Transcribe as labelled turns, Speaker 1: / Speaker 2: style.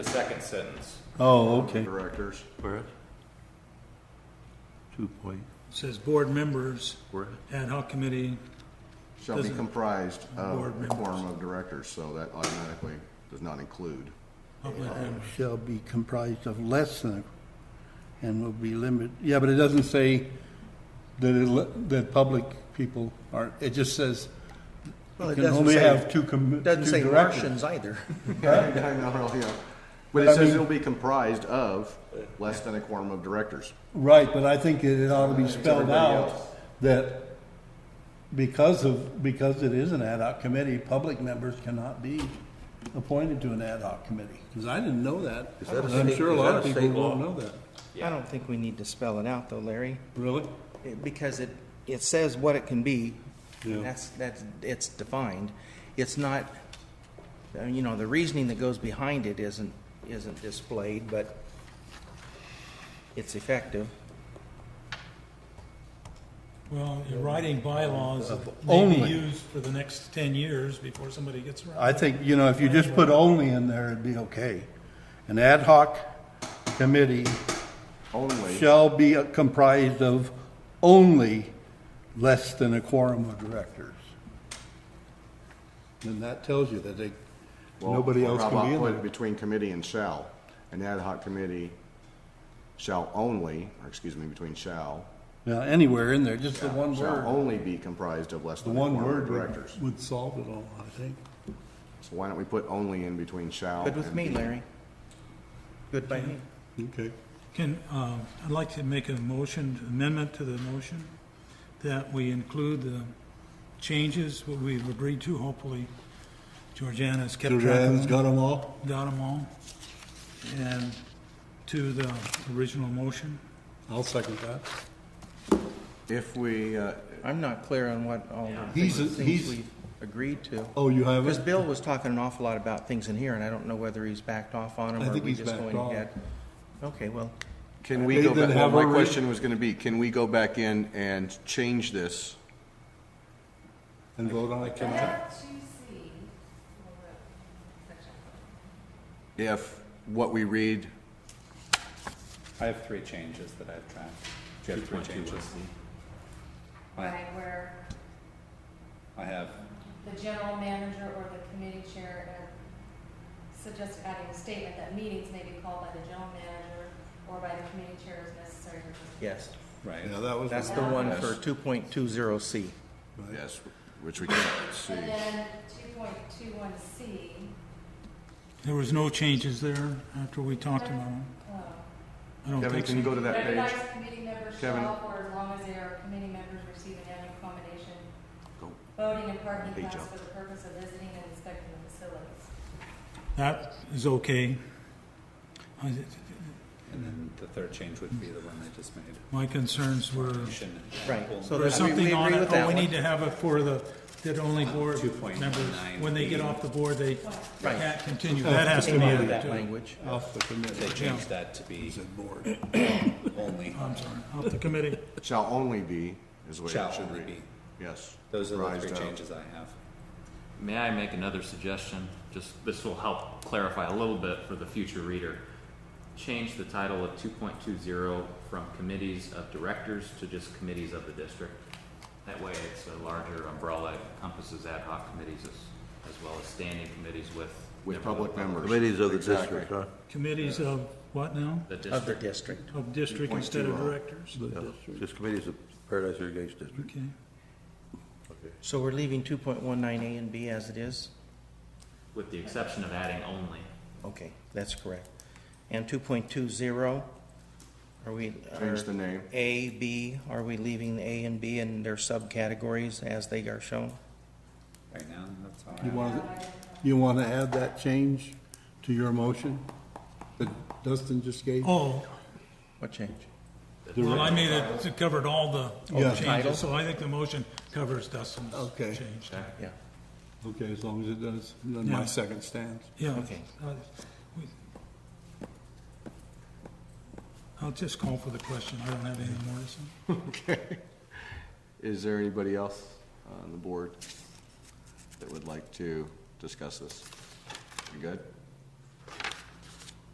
Speaker 1: The second sentence.
Speaker 2: Oh, okay.
Speaker 3: directors.
Speaker 4: Where is? Two point,
Speaker 5: Says board members,
Speaker 4: where is?
Speaker 5: ad hoc committee,
Speaker 3: Shall be
Speaker 5: Doesn't-
Speaker 3: comprised
Speaker 5: Board
Speaker 3: of a
Speaker 5: members.
Speaker 3: quorum of directors, so that automatically does not include.
Speaker 5: public members.
Speaker 2: Shall be comprised of less than, a- and will be limited, yeah, but it doesn't say that, it li- that public people are, it just says
Speaker 6: Well,
Speaker 2: you
Speaker 6: it
Speaker 2: can
Speaker 6: doesn't
Speaker 2: only
Speaker 6: say-
Speaker 2: have two com, two
Speaker 6: Doesn't say
Speaker 2: directors.
Speaker 6: Russians either.
Speaker 3: I know, yeah. But
Speaker 2: I
Speaker 3: it says
Speaker 2: mean-
Speaker 3: it'll be comprised of less than a quorum of directors.
Speaker 2: Right, but I think it it ought to be
Speaker 3: It's
Speaker 2: spelled
Speaker 3: everybody
Speaker 2: out
Speaker 3: else.
Speaker 2: that because of, because it is an ad hoc committee, public members cannot be appointed to an ad hoc committee, because I didn't know that.
Speaker 4: Is that a
Speaker 2: And I'm
Speaker 4: state-
Speaker 2: sure a
Speaker 4: is
Speaker 2: lot
Speaker 4: that
Speaker 2: of
Speaker 4: a
Speaker 2: people
Speaker 4: state
Speaker 2: won't
Speaker 4: law?
Speaker 2: know that.
Speaker 1: Yeah.
Speaker 7: I don't think we need to spell it out though, Larry,
Speaker 2: Really?
Speaker 7: it- because it, it says what it can be.
Speaker 2: Yeah.
Speaker 7: That's, that's, it's defined. It's not, uh, you know, the reasoning that goes behind it isn't, isn't displayed, but it's effective.
Speaker 5: Well, you're writing bylaws that may be
Speaker 2: Only.
Speaker 5: used for the next ten years before somebody gets around.
Speaker 2: I think, you know, if you just put only in there, it'd be okay. An ad hoc committee
Speaker 3: Only,
Speaker 2: shall be comprised of only less than a quorum of directors. And that tells you that they,
Speaker 3: well,
Speaker 2: nobody else
Speaker 3: how
Speaker 2: can be
Speaker 3: about
Speaker 2: in
Speaker 3: put
Speaker 2: there.
Speaker 3: Between committee and shall. An ad hoc committee shall only, or excuse me, between shall,
Speaker 2: Now, anywhere in there, just the one
Speaker 3: shall
Speaker 2: word,
Speaker 3: only be comprised of less
Speaker 2: the
Speaker 3: than a
Speaker 2: one
Speaker 3: quorum of
Speaker 2: word
Speaker 3: directors.
Speaker 2: would- would solve it all, I think.
Speaker 3: So why don't we put only in between shall?
Speaker 7: Good with
Speaker 3: and
Speaker 7: me,
Speaker 3: be?
Speaker 7: Larry. Good by me.
Speaker 2: Okay.
Speaker 5: Can, um, I'd like to make a motion, amendment to the motion, that we include the changes, what we've agreed to, hopefully. Georgiana's kept track of
Speaker 2: Joanne's
Speaker 5: them.
Speaker 2: got them all?
Speaker 5: got them all, and to the original motion.
Speaker 2: I'll second that.
Speaker 3: If we, uh,
Speaker 7: I'm not clear on what all the
Speaker 2: He's-
Speaker 7: things
Speaker 2: he's-
Speaker 7: we've agreed to.
Speaker 2: Oh, you have
Speaker 7: Because
Speaker 2: it?
Speaker 7: Bill was talking an awful lot about things in here, and I don't know whether he's backed off on them,
Speaker 2: I
Speaker 7: or are
Speaker 2: think
Speaker 7: we
Speaker 2: he's
Speaker 7: just
Speaker 2: backed
Speaker 7: going
Speaker 2: off.
Speaker 7: ahead? Okay, well,
Speaker 3: Can we
Speaker 2: They
Speaker 3: go
Speaker 2: didn't
Speaker 3: back, well,
Speaker 2: have a
Speaker 3: my
Speaker 2: re-
Speaker 3: question was gonna be, can we go back in and change this?
Speaker 2: And vote on it?
Speaker 8: F two C, well, the section.
Speaker 3: If what we read,
Speaker 1: I have three changes that I've tracked. Do you have three changes? I,
Speaker 8: right, where
Speaker 1: I have,
Speaker 8: the general manager or the committee chair are suggested adding a statement that meetings may be called by the general manager or by the committee chair as necessary.
Speaker 7: yes.
Speaker 1: right.
Speaker 2: Yeah, that was.
Speaker 7: That's the one for 2.20C.
Speaker 3: yes, which we can't see.
Speaker 8: And then two point two one C,
Speaker 5: There was no changes there after we talked about them. I don't
Speaker 3: Kevin,
Speaker 5: think
Speaker 3: can you
Speaker 5: so.
Speaker 3: go to that page?
Speaker 8: um, recognized committee members
Speaker 3: Kevin.
Speaker 8: shall, for as long as they are committee members, receive an annual accommodation,
Speaker 3: Go.
Speaker 8: voting and parking
Speaker 3: Page
Speaker 8: pass
Speaker 3: up.
Speaker 8: for the purpose of visiting and inspecting the facilities.
Speaker 5: That is okay. I-
Speaker 1: And then the third change would be the one I just made.
Speaker 5: My concerns were,
Speaker 1: Shouldn't-
Speaker 7: Right, so
Speaker 5: there's
Speaker 7: there's
Speaker 5: something on it, oh,
Speaker 7: that
Speaker 5: we
Speaker 7: one. Uh,
Speaker 5: need to have it for the, that only board
Speaker 1: 2.19.
Speaker 5: members, when they get off the board, they
Speaker 7: Right.
Speaker 5: can't continue. That has to be
Speaker 7: Came out of
Speaker 5: added
Speaker 7: that
Speaker 5: too.
Speaker 7: language.
Speaker 2: Off the
Speaker 1: They
Speaker 2: committee.
Speaker 1: changed that to be only,
Speaker 5: I'm sorry, off the committee.
Speaker 3: Shall only be, is the way
Speaker 1: shall
Speaker 3: it should
Speaker 1: only
Speaker 3: read.
Speaker 1: be.
Speaker 3: Yes.
Speaker 1: Those are the
Speaker 3: Comprised
Speaker 1: three
Speaker 3: of.
Speaker 1: changes I have.
Speaker 9: May I make another suggestion? Just, this will help clarify a little bit for the future reader. Change the title of two point two zero from committees of directors to just committees of the district. That way, it's a larger umbrella, It encompasses ad hoc committees as, as well as standing committees with.
Speaker 3: With public members.
Speaker 4: Committees of the
Speaker 3: Exactly.
Speaker 4: district, huh?
Speaker 5: Committees of what now?
Speaker 9: The
Speaker 7: Of the
Speaker 9: district.
Speaker 7: district.
Speaker 5: Of district instead of
Speaker 3: 2.20.
Speaker 7: oh.
Speaker 5: directors?
Speaker 4: Yeah, Just committees of Paradise Irrigation District.
Speaker 5: Okay.
Speaker 7: So we're leaving 2.19A and B as it is?
Speaker 9: With the exception of adding only.
Speaker 7: Okay, that's correct. And 2.20, are we?
Speaker 3: Change
Speaker 7: are
Speaker 3: the name.
Speaker 7: A, B, are we leaving A and B in their subcategories as they are shown?
Speaker 1: Right now, that's all I
Speaker 2: You
Speaker 1: have.
Speaker 2: want, you want to add that change to your motion that Dustin just gave?
Speaker 5: Oh,
Speaker 7: What change?
Speaker 5: well, I made it, it covered all
Speaker 2: Yeah.
Speaker 5: the
Speaker 7: Title?
Speaker 5: changes, so I think the motion covers Dustin's
Speaker 2: Okay.
Speaker 5: change.
Speaker 7: Yeah,
Speaker 2: Okay, as long as it does, then my
Speaker 5: Yeah.
Speaker 2: second stands.
Speaker 5: Yeah.
Speaker 7: Okay.
Speaker 5: Uh, we- I'll just call for the question, I don't have anything more to say.
Speaker 3: Okay. Is there anybody else on the board that would like to discuss this? You good?